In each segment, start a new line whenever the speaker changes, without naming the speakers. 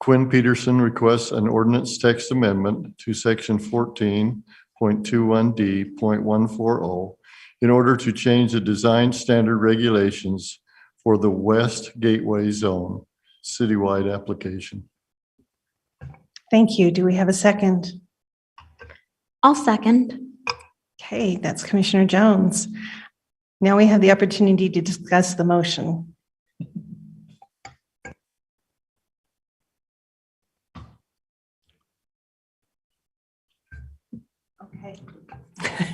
Quinn Peterson requests an ordinance text amendment to section fourteen point two one D point one four oh in order to change the design standard regulations for the West Gateway Zone citywide application.
Thank you. Do we have a second?
I'll second.
Okay, that's Commissioner Jones. Now we have the opportunity to discuss the motion. Okay.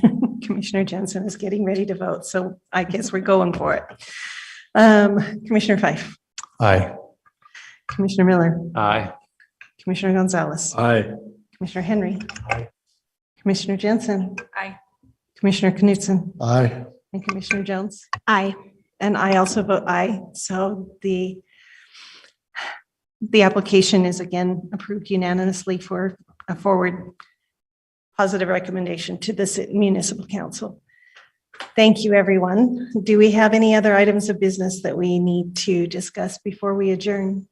Commissioner Jensen is getting ready to vote, so I guess we're going for it. Um, Commissioner Fife,
Aye.
Commissioner Miller,
Aye.
Commissioner Gonzalez,
Aye.
Commissioner Henry. Commissioner Jensen.
Aye.
Commissioner Knutson.
Aye.
And Commissioner Jones?
Aye.
And I also vote aye. So the, the application is again approved unanimously for a forward positive recommendation to this municipal council. Thank you, everyone. Do we have any other items of business that we need to discuss before we adjourn?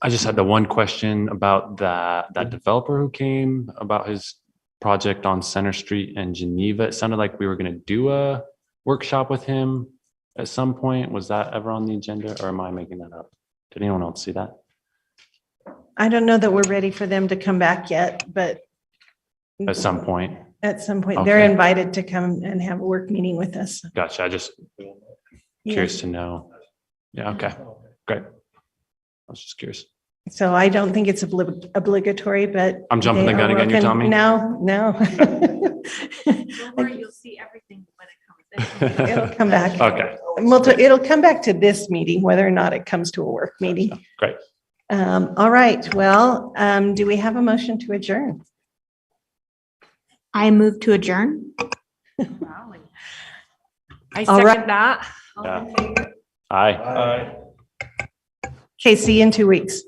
I just had the one question about that, that developer who came about his project on Center Street in Geneva. It sounded like we were going to do a workshop with him at some point. Was that ever on the agenda or am I making that up? Did anyone else see that?
I don't know that we're ready for them to come back yet, but
At some point?
at some point, they're
Okay.
invited to come and have a work meeting with us.
Gotcha. I just curious to know. Yeah, Oh, okay, great. I was just curious.
So I don't think it's obli- obligatory, but.
I'm jumping
they
the gun
are
again, you're
working-
telling me?
No, no.
Don't worry, you'll see everything when it comes.
It'll come back.
Okay.
Well, to- it'll come back to this meeting, whether or not it comes to a work meeting.
Great.
Um, all right, well, um, do we have a motion to adjourn?
I move to adjourn.
Wow. I
All right.
second that.
Yeah. Aye.
Okay, see you in two weeks.